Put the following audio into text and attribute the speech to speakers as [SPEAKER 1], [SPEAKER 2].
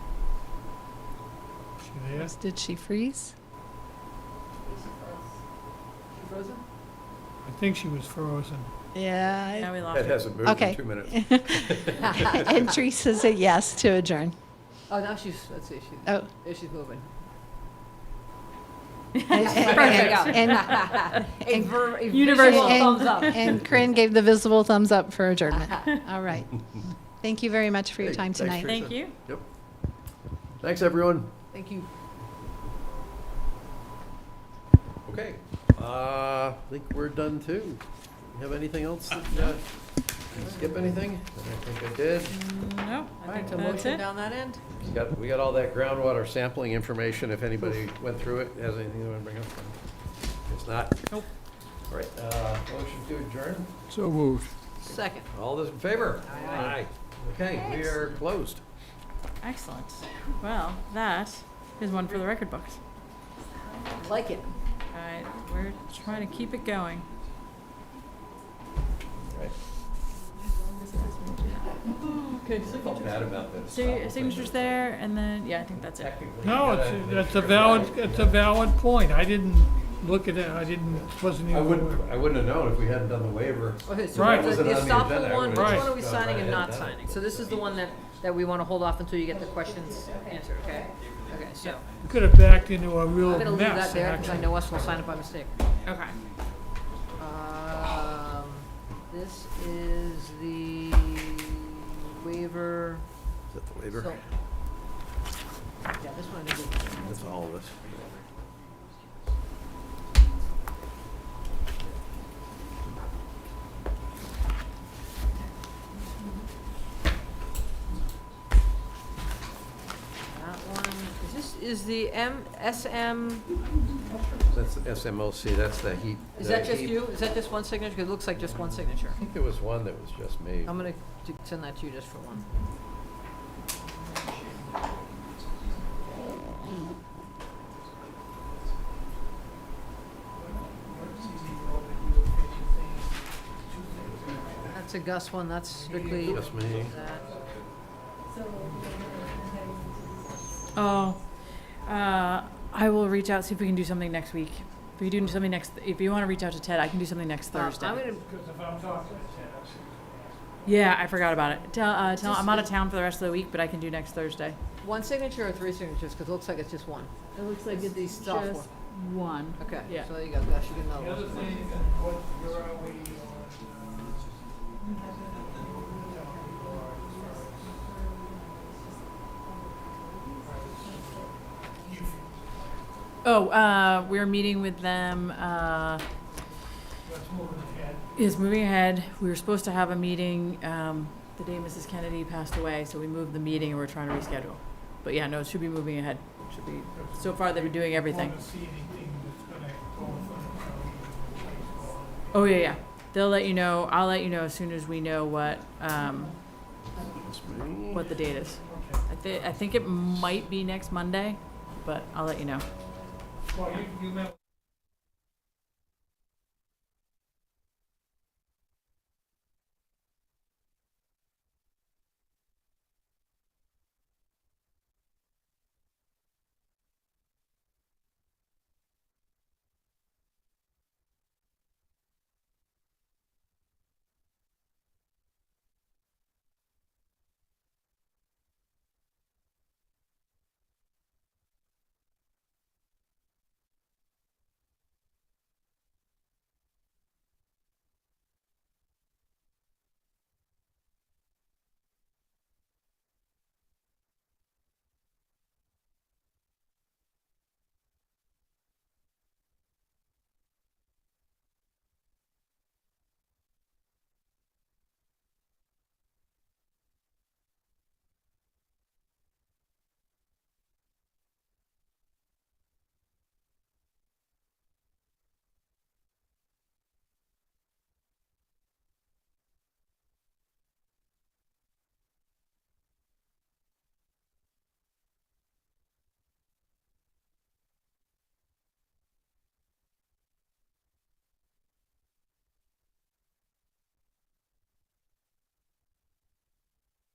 [SPEAKER 1] She there?
[SPEAKER 2] Did she freeze?
[SPEAKER 3] She frozen?
[SPEAKER 1] I think she was frozen.
[SPEAKER 2] Yeah.
[SPEAKER 4] Now we lost
[SPEAKER 5] That
[SPEAKER 4] her.
[SPEAKER 5] hasn't moved
[SPEAKER 2] Okay.
[SPEAKER 5] in two minutes.
[SPEAKER 2] I- And Teresa said yes to adjourn.
[SPEAKER 3] Oh, now she's, let's see, she,
[SPEAKER 2] Oh.
[SPEAKER 3] yeah, she's moving.
[SPEAKER 2] And- and- and-
[SPEAKER 3] uh, A
[SPEAKER 2] and-
[SPEAKER 3] ver- a visual
[SPEAKER 4] Universal
[SPEAKER 2] and-
[SPEAKER 3] thumbs up.
[SPEAKER 2] And Corinne gave the visible thumbs up for adjournment. All right. Thank you very much for your
[SPEAKER 5] Hey,
[SPEAKER 2] time
[SPEAKER 5] thanks for your
[SPEAKER 2] tonight.
[SPEAKER 4] Thank you.
[SPEAKER 5] Yep. Thanks, everyone.
[SPEAKER 3] Thank you.
[SPEAKER 5] Okay. Uh, I think we're done too. You have anything else? that, uh, did I Skip anything? I think I did.
[SPEAKER 4] No,
[SPEAKER 3] All
[SPEAKER 4] I
[SPEAKER 3] right,
[SPEAKER 4] think
[SPEAKER 3] a
[SPEAKER 4] that's
[SPEAKER 3] motion
[SPEAKER 4] it.
[SPEAKER 3] down that end?
[SPEAKER 5] We got, we got all that groundwater sampling information. If anybody went through it, has anything they want to bring up? If not?
[SPEAKER 4] Nope.
[SPEAKER 5] All right, uh, motion to adjourn.
[SPEAKER 1] So moved.
[SPEAKER 3] Second.
[SPEAKER 5] All those in favor?
[SPEAKER 3] Aye.
[SPEAKER 5] Okay, we are closed.
[SPEAKER 4] Excellent. Well, that is one for the record books.
[SPEAKER 3] Like it.
[SPEAKER 4] All right, we're trying to keep it going.
[SPEAKER 5] Right.
[SPEAKER 3] Okay.
[SPEAKER 5] Felt bad about this.
[SPEAKER 4] So your signatures there, and then yeah, I think that's it.
[SPEAKER 5] Technically,
[SPEAKER 1] No,
[SPEAKER 5] you
[SPEAKER 1] it's,
[SPEAKER 5] gotta make
[SPEAKER 1] that's a
[SPEAKER 5] sure that-
[SPEAKER 1] valid, it's a valid point. I didn't look at it, I didn't, wasn't even.
[SPEAKER 5] I wouldn't, I wouldn't have known if we hadn't done the waiver.
[SPEAKER 3] Okay, so
[SPEAKER 1] Right.
[SPEAKER 3] the-
[SPEAKER 5] Wasn't
[SPEAKER 3] the
[SPEAKER 5] on the
[SPEAKER 3] estoppel
[SPEAKER 5] agenda, I
[SPEAKER 3] one, which
[SPEAKER 5] would've
[SPEAKER 1] Right.
[SPEAKER 3] one are we
[SPEAKER 5] gone
[SPEAKER 3] signing
[SPEAKER 5] right
[SPEAKER 3] and
[SPEAKER 5] ahead
[SPEAKER 3] not
[SPEAKER 5] and done it.
[SPEAKER 3] signing? So this is the one that, that we want to hold off until you get the questions answered, okay? Okay, so,
[SPEAKER 1] We Could have backed into a real
[SPEAKER 3] I'm gonna leave
[SPEAKER 1] mess,
[SPEAKER 3] that there, because I
[SPEAKER 1] actually.
[SPEAKER 3] know us will sign it by mistake.
[SPEAKER 4] Okay.
[SPEAKER 3] Um, This is the waiver.
[SPEAKER 5] Is that the
[SPEAKER 3] so-
[SPEAKER 5] waiver?
[SPEAKER 3] Yeah, this one I did.
[SPEAKER 5] That's all of us.
[SPEAKER 3] That one, is this, is the M, SM,
[SPEAKER 5] That's the SMLC, that's the heat.
[SPEAKER 3] is
[SPEAKER 5] the
[SPEAKER 3] that just
[SPEAKER 5] heat-
[SPEAKER 3] you? Is that just one signature? 'Cause it looks like just one signature.
[SPEAKER 5] I think there was one that was just me.
[SPEAKER 3] I'm gonna t- send that to you just for one. That's a Gus one, that's strictly
[SPEAKER 5] Just me.
[SPEAKER 3] that.
[SPEAKER 4] Oh, uh, I will reach out see if we can do something next week. If we do something next, if you want to reach out to Ted, I can do something next
[SPEAKER 3] Um,
[SPEAKER 4] Thursday.
[SPEAKER 3] I'm gonna,
[SPEAKER 4] yeah, I forgot about it. Tell, uh, tell,
[SPEAKER 3] Just-
[SPEAKER 4] I'm out of town for the rest of the week, but I can do next Thursday.
[SPEAKER 3] one signature or three signatures, cause it looks like it's just one.
[SPEAKER 4] It looks
[SPEAKER 3] like It's it's the software. just
[SPEAKER 4] one.
[SPEAKER 3] Okay,
[SPEAKER 4] Yeah.
[SPEAKER 3] so there you go, Gus, you get another one.
[SPEAKER 4] Oh, uh, we're meeting with them. Uh, is moving ahead. We were supposed to have a meeting um, the day Mrs. Kennedy passed away, so we moved the meeting and we're trying to reschedule. But yeah, no, it should be moving ahead. Should be. So far, they've been doing everything. Oh yeah, yeah. They'll let you know. I'll let you know as soon as we know what um,
[SPEAKER 5] Just me.
[SPEAKER 4] what the date is. I, th- I think it might be next Monday, but I'll let you know.
[SPEAKER 1] Well, you, you meant